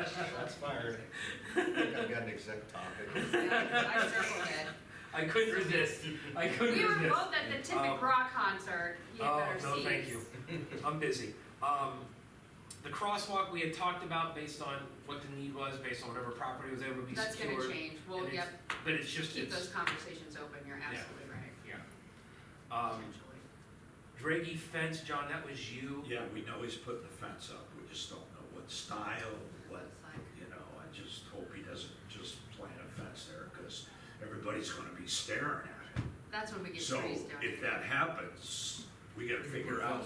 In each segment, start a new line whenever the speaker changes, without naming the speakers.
That's fired. I think I've got an exact topic.
I circled it.
I couldn't resist. I couldn't
We were
resist.
both at the Tippit
Um,
Rock concert. You had
oh
better
no,
seats.
thank you. I'm busy. Um, the crosswalk we had talked about based on what the need was, based on whatever property was able to be
That's
secured.
gonna change. Well,
and
yep,
it's- But it's just
keep
it's
those conversations open. You're absolutely right.
um,
Potentially.
Draggy fence, John. That was you.
Yeah, we know he's putting the fence up, we just don't know what style, what,
It's like,
you know, I just hope he doesn't just plant a fence there, because everybody's gonna be staring at it.
That's when we get
So
trees down.
if that happens, we gotta figure out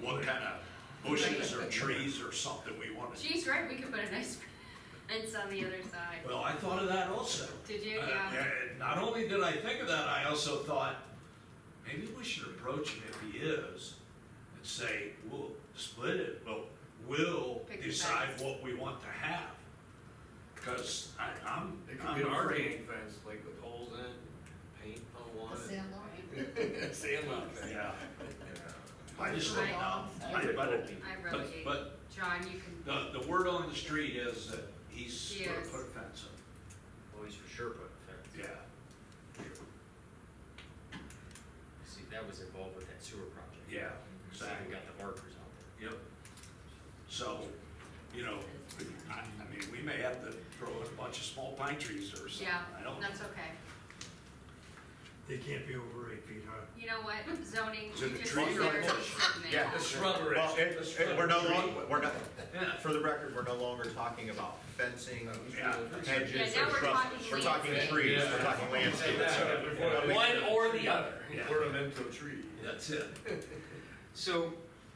what kind of bushes or trees or something we wanna.
She's right, we could put a nice fence on the other side.
Well, I thought of that also.
Did you?
Uh,
Yeah.
and Not only did I think of that, I also thought, maybe we should approach him if he is and say, we'll split it, but we'll
Pick the
decide what we want to have. Because I, I'm,
It could be
I'm
a
arguing.
frame fence, like with holes in, it, paint on one. Sandlot fence.
Yeah. I just don't know. I- But,
I really
but,
hate.
but
John, you can.
the, the word on the street is that he's
He
gonna
is.
put a fence up.
Well, he's for sure putting a fence.
Yeah.
See, that was involved with that sewer project.
Yeah,
So we
exactly.
got the markers out there.
Yep. So, you know, I, I mean, we may have to throw in a bunch of small pine trees or something,
Yeah,
I don't.
that's okay.
They can't be over eight feet high.
You know what? Zoning.
Is
you
it a
just
tree or a
considered
bush?
something.
Yeah.
The shrubbery.
Well, it,
The
it, we're no
shrubbery.
longer, we're not,
Yeah.
for the record, we're no longer talking about fencing,
Yeah.
hedges,
Yeah, now
or
we're
shrubs.
talking
We're talking
landscape.
trees, we're talking landscape.
One or the other.
Yeah.
Ornamental tree.
That's it.
So,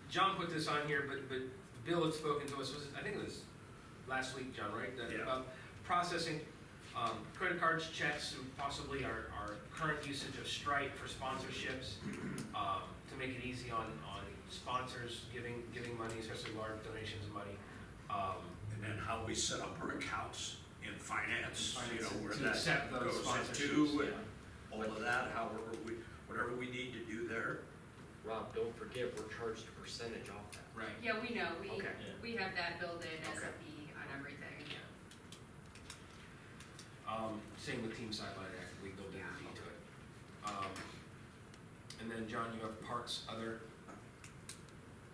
John put this on here, but, but Bill had spoken to us, was, it- I think it was last week, John, right? That-
Yeah.
About processing, um, credit cards, checks, and possibly our, our current usage of Stripe for sponsorships, um, to make it easy on, on sponsors giving, giving money, especially large donations of money. Um,
And then how we set up our accounts in finance, you know, where
To accept
that
those
goes
sponsorships,
into
yeah.
and all of that, however we, whatever we need to do there.
Rob, don't forget, we're charged a percentage off that.
Right.
Yeah, we know. We,
Okay.
we have that built in as a
Okay.
fee on everything.
Um, same with team sideline act, we build in fee to it. Um, and then, John, you have parks, other,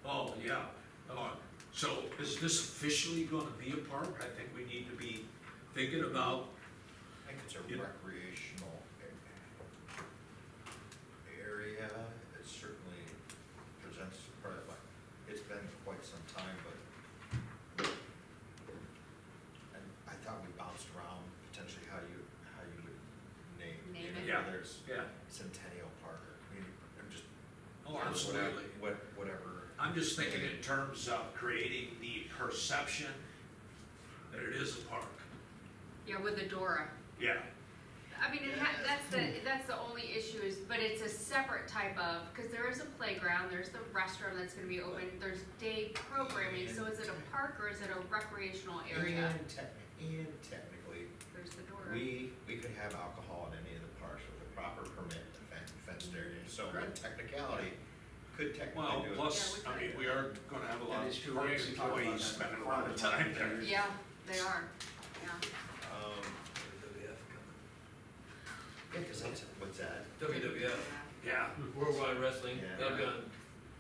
Oh, yeah. Uh, So is this officially gonna be a park? I think we need to be thinking about
I think it's a
Yeah.
recreational a- area, it certainly presents part of, it. it's been quite some time, but and I thought we bounced around potentially how you, how you would name,
Name
you
it.
know,
Yeah.
whether it's
Yeah.
Centennial Park or Community, Park, I'm just.
Oh,
or whatever-
absolutely.
What, whatever.
I'm just thinking in terms of creating the perception that it is a park.
Yeah, with the Dora.
Yeah.
I mean, it ha- that's the, that's the only issue is, but it's a separate type of, because there is a playground, there's the restroom that's gonna be open, there's day programming, so is it a park or is it a recreational area?
And tech, and technically,
There's the Dora.
We, we could have alcohol in any of the parks with a proper permit in the fen- fenced area, so in technicality, could
Well,
technically do it.
plus, I mean, we are gonna have a lot
That is
of
true. We
park
actually talked about
employees
that.
spending a lot of time there.
Yeah, they are, yeah.
Um, Yeah, 'cause that's, what's that?
WWF,
Yeah,
Worldwide Wrestling,
Yeah.
that'll be on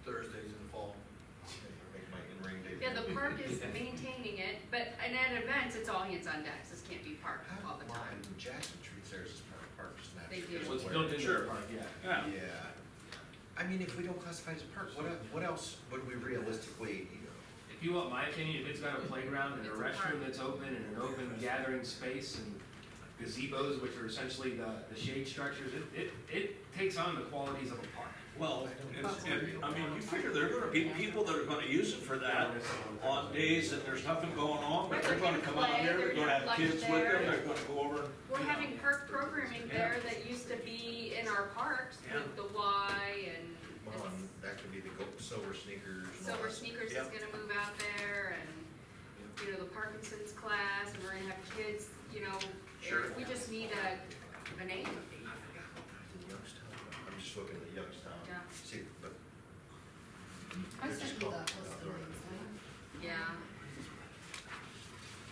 Thursdays in the fall.
Make my in-ring debut.
Yeah, the park is maintaining it, but, and at events, it's all hands on deck, this can't be parked
How
all
do
the time.
Lyme Jackson treats theirs as part of park, just not.
They do.
just
Well,
what's
where-
built into
Sure.
the park, yeah.
yeah.
Yeah, I mean, if we don't classify it as a park, what, el- what else would we realistically,
If you want my opinion, if it's got a playground and a
It's a park.
restroom that's open and an open gathering space and gazebos, which are essentially the, the shade structures, it, it, it takes on the qualities of a park.
Well, it's- and, I mean, you figure there are gonna be people that are gonna use it for that on days that there's nothing going on, but they're gonna come out here, they're gonna have kids with them, they're gonna go over. and,
We're
you know.
having park programming there that used to be in our parks,
Yeah.
like the Y and.
well, and um, that could be the gold, silver sneakers. and all
Silver
that.
Sneakers is
Yep.
gonna move out there and, you know, the Parkinson's class, and we're gonna have kids, you know,
Sure.
we just need a, a name.
Youngstown, I'm just looking at Youngstown.
Yeah.
See, but
I was
They're just
thinking about
called-
West Indies,
Yeah,